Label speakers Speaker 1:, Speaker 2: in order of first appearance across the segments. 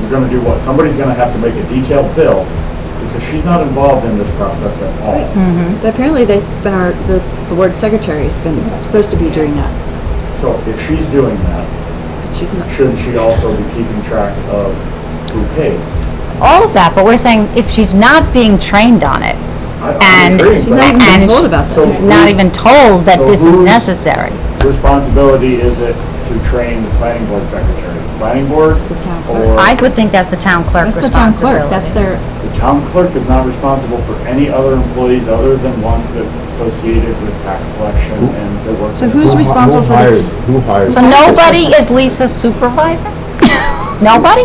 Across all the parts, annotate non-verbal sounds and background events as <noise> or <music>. Speaker 1: You're gonna do what? Somebody's gonna have to make a detailed bill because she's not involved in this process at
Speaker 2: Mm.
Speaker 1: all.
Speaker 3: But apparently that's been our, the board secretary's been, supposed to be doing that.
Speaker 1: So if she's doing that,
Speaker 3: but She's not,
Speaker 1: shouldn't she also be keeping track of who pays?
Speaker 2: all of that, but we're saying if she's not being trained on it,
Speaker 1: I- I'm
Speaker 2: And-
Speaker 1: agreeing,
Speaker 3: she's
Speaker 1: but
Speaker 3: not even been
Speaker 2: And-
Speaker 3: told about this.
Speaker 1: So-
Speaker 2: not even told that this is
Speaker 1: who's-
Speaker 2: necessary.
Speaker 1: Responsibility is it to train the planning board secretary? Planning board?
Speaker 3: The town clerk.
Speaker 1: Or
Speaker 2: I would think that's the town clerk's
Speaker 3: That's the town
Speaker 2: responsibility.
Speaker 3: clerk, that's their,
Speaker 1: the town clerk is not responsible for any other employees other than ones that associated with tax collection and the work.
Speaker 3: so who's responsible for
Speaker 4: hires,
Speaker 3: the,
Speaker 4: Who hires?
Speaker 2: So nobody is Lisa's
Speaker 3: <laughs>
Speaker 2: supervisor? Nobody?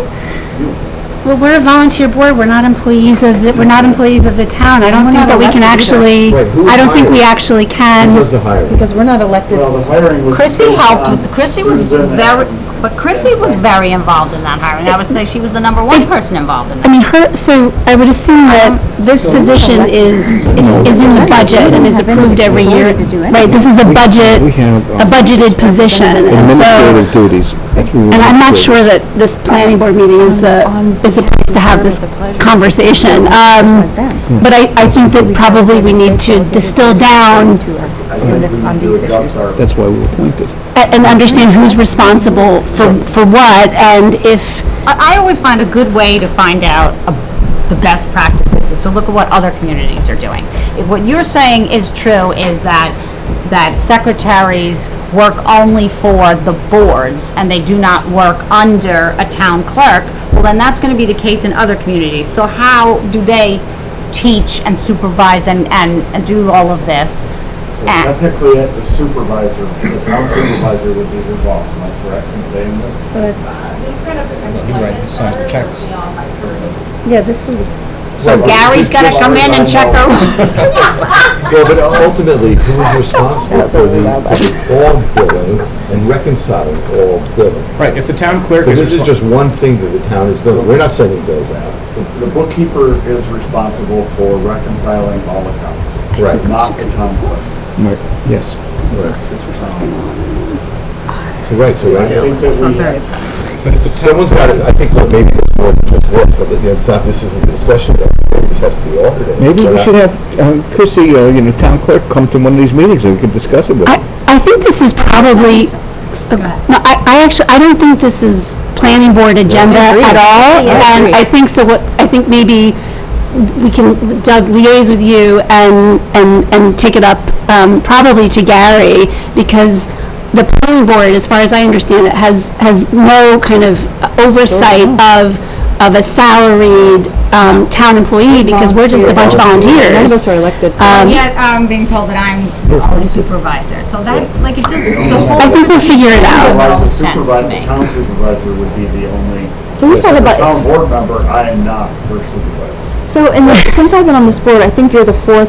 Speaker 5: Well, we're a volunteer board, we're not employees of, the- we're not employees of the town. I don't
Speaker 3: We're
Speaker 5: think
Speaker 3: not
Speaker 5: that we can
Speaker 3: elected
Speaker 5: actually,
Speaker 4: Wait, who
Speaker 5: I don't think we
Speaker 4: hired?
Speaker 5: actually
Speaker 4: Who
Speaker 5: can.
Speaker 4: does the hiring?
Speaker 3: because we're not elected.
Speaker 1: Well, the hiring was.
Speaker 2: Chrissy
Speaker 1: based
Speaker 2: helped,
Speaker 1: on
Speaker 2: with- Chrissy was
Speaker 1: Susan
Speaker 2: very,
Speaker 1: and-
Speaker 2: but Chrissy was very involved in that hiring. I would say she was the number one person involved in
Speaker 5: I
Speaker 2: that.
Speaker 5: mean, her, so I would assume that this position is, is is in the budget and is approved every year. Right, this is a budget,
Speaker 4: We
Speaker 6: uh,
Speaker 4: have, um,
Speaker 5: a budgeted position, and so,
Speaker 4: Administrative duties. That's what we
Speaker 5: and I'm
Speaker 4: want
Speaker 5: not
Speaker 4: to do.
Speaker 5: sure that this planning board meeting is the, is the place to have this conversation. Um, But I, I think that probably we need to distill down
Speaker 3: To us
Speaker 1: I think
Speaker 3: in this,
Speaker 1: we
Speaker 3: on
Speaker 1: need to
Speaker 3: these
Speaker 1: adjust
Speaker 3: issues.
Speaker 1: our-
Speaker 4: That's why we were appointed.
Speaker 5: a- and understand who's responsible for, for what, and if,
Speaker 2: I, I always find a good way to find out a- the best practices is to look at what other communities are doing. If what you're saying is true, is that, that secretaries work only for the boards and they do not work under a town clerk, well then that's gonna be the case in other communities. So how do they teach and supervise and, and, and do all of this?
Speaker 1: So
Speaker 2: Ah.
Speaker 1: Technically, it- the supervisor, the town supervisor would be your boss, am I correct in saying this?
Speaker 7: These kind of employment
Speaker 8: signs the
Speaker 7: matters
Speaker 8: checks.
Speaker 7: are beyond my purview.
Speaker 5: yeah, this is.
Speaker 2: So Gary's gotta come in and check
Speaker 1: over.
Speaker 2: over.
Speaker 4: Well, but ultimately, who's responsible for the, for the all billing and reconciling all billing?
Speaker 8: Right, if the town clerk
Speaker 4: Because this
Speaker 8: is,
Speaker 4: is
Speaker 8: respon-
Speaker 4: just one thing that the town is doing. We're not sending bills out.
Speaker 1: The bookkeeper is responsible for reconciling all accounts.
Speaker 4: Right.
Speaker 1: Not the town clerk.
Speaker 4: Yes. So, Right,
Speaker 1: I
Speaker 4: so right now,
Speaker 1: think that we,
Speaker 4: someone's got to, I think, well, maybe there's more than just this, but you know, it's not, this isn't the discussion, that maybe this has to be uh, audited.
Speaker 6: Maybe
Speaker 4: We're
Speaker 6: we
Speaker 4: not-
Speaker 6: should have um, Chrissy, uh, you know, town clerk, come to one of these meetings and we could discuss it with her.
Speaker 5: I, I think this is probably, no, I, I actually, I don't think this is planning board agenda at all. And I think so what, I think maybe we can, Doug, liaise with you and, and, and take it up, um, probably to Gary, because the planning board, as far as I understand it, has, has no kind of oversight
Speaker 3: Mm-hmm.
Speaker 5: of, of a salaried, um, town employee, because we're just a bunch of
Speaker 3: None of
Speaker 5: volunteers.
Speaker 3: us are elected.
Speaker 5: Um,
Speaker 2: And yet I'm being told that I'm the only supervisor, so that, like, it just, the whole.
Speaker 5: I think we'll figure it out.
Speaker 2: Doesn't
Speaker 1: otherwise the
Speaker 2: make sense to
Speaker 1: supervisor, the
Speaker 2: me.
Speaker 1: town supervisor would be the only,
Speaker 3: So we've got
Speaker 1: as a
Speaker 3: about,
Speaker 1: town board member, I am not her supervisor.
Speaker 3: So, and since I've been on this board, I think you're the fourth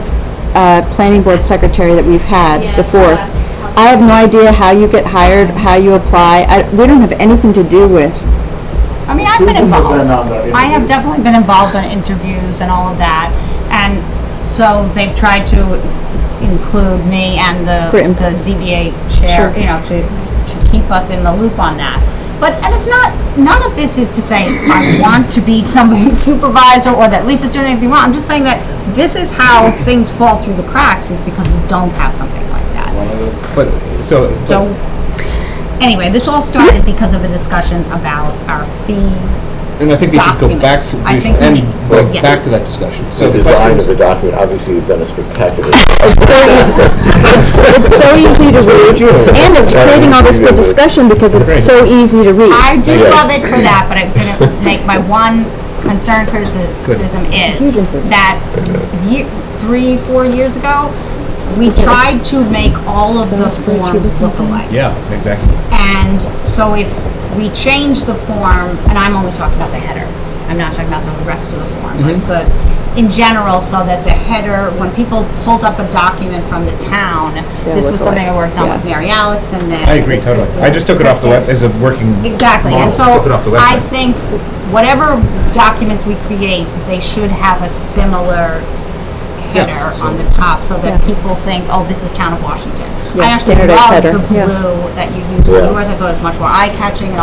Speaker 3: uh, planning board secretary that we've had, the fourth. I have no idea how you get hired, how you apply. I- We don't have anything to do with,
Speaker 2: I mean, I've been
Speaker 1: Susan was in
Speaker 2: involved.
Speaker 1: on the
Speaker 2: I have
Speaker 1: interview.
Speaker 2: definitely been involved in interviews and all of that, and so they've tried to include me and the,
Speaker 3: For input.
Speaker 2: the ZBA chair, you know, to, to keep us in the loop on that. But, and it's not, none of this is to say I want to be somebody's <laughs> supervisor or that Lisa's doing anything wrong. I'm just saying that this is how things fall through the cracks is because we don't have something like that.
Speaker 8: but, so,
Speaker 2: So, anyway, this all started because of a discussion about our fee.
Speaker 8: and I think we should go back, to-
Speaker 2: Documents. I
Speaker 8: we should
Speaker 2: think we
Speaker 8: end,
Speaker 2: need-
Speaker 8: go
Speaker 2: yes.
Speaker 8: back to that discussion. So
Speaker 4: The
Speaker 8: the question
Speaker 4: design
Speaker 8: is,
Speaker 4: of the document, obviously, you've done a spectacular.
Speaker 3: it's so easy, it's it's so easy to read, and it's creating all this good discussion because it's so easy to read.
Speaker 2: I do
Speaker 4: Yes.
Speaker 2: love it for that, but I'm
Speaker 8: <laughs>
Speaker 2: gonna make my one concern criticism is
Speaker 3: huge improvement.
Speaker 2: that ye three, four years ago, we tried to make all of the forms look alike.
Speaker 8: yeah, exactly.
Speaker 2: And so if we change the form, and I'm only talking about the header, I'm not talking about the rest of the form, like,
Speaker 8: Mm-hmm.
Speaker 2: but in general, so that the header, when people pulled up a document from the town, this
Speaker 3: look
Speaker 2: was something I worked on with Mary Alex and then.
Speaker 8: I agree totally. I just took it off the web as a working.
Speaker 2: Exactly, and
Speaker 8: model.
Speaker 2: so
Speaker 8: Took it off the
Speaker 2: I
Speaker 8: website.
Speaker 2: think whatever documents we create, they should have a similar header on the top so that people think, oh, this is Town of Washington.
Speaker 3: Yeah,
Speaker 2: I actually
Speaker 3: standardized
Speaker 2: love
Speaker 3: header.
Speaker 2: the
Speaker 3: Yeah.
Speaker 2: blue that you used,
Speaker 4: Yeah.
Speaker 2: yours I thought it was much more eye-catching and